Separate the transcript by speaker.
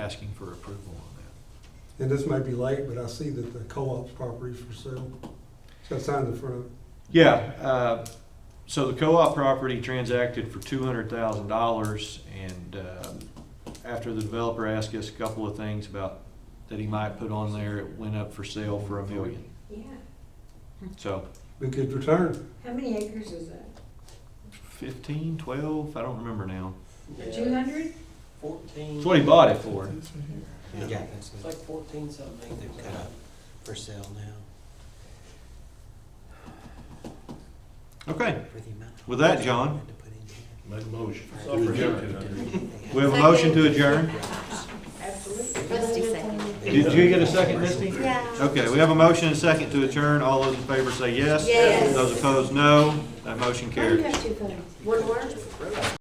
Speaker 1: asking for approval on that.
Speaker 2: And this may be late, but I see that the co-op's property is for sale. It's got signs in front of it.
Speaker 1: Yeah, uh, so the co-op property transacted for two hundred thousand dollars, and um, after the developer asked us a couple of things about that he might put on there, it went up for sale for a million.
Speaker 3: Yeah,
Speaker 1: So
Speaker 2: Be good return.
Speaker 3: how many acres is that?
Speaker 1: fifteen, twelve, I don't remember now.
Speaker 4: Yeah,
Speaker 3: Two hundred?
Speaker 4: Fourteen.
Speaker 1: That's what he bought it for.
Speaker 5: Yeah, that's
Speaker 4: It's
Speaker 5: it.
Speaker 4: like fourteen something.
Speaker 5: They've got it for sale now.
Speaker 1: Okay,
Speaker 5: For the amount.
Speaker 1: With that, John.
Speaker 5: To put in
Speaker 6: Make a motion.
Speaker 4: So rejected.
Speaker 5: here.
Speaker 1: we have a motion to adjourn.
Speaker 3: Absolutely.
Speaker 7: Misty second.
Speaker 1: Did you get a second, Misty?
Speaker 7: Yeah.
Speaker 1: Okay, we have a motion and a second to adjourn. All those in favor say yes.
Speaker 7: Yes.
Speaker 1: Those opposed, no. That motion
Speaker 3: Why do you
Speaker 1: carries.
Speaker 3: have two phones?
Speaker 7: One more?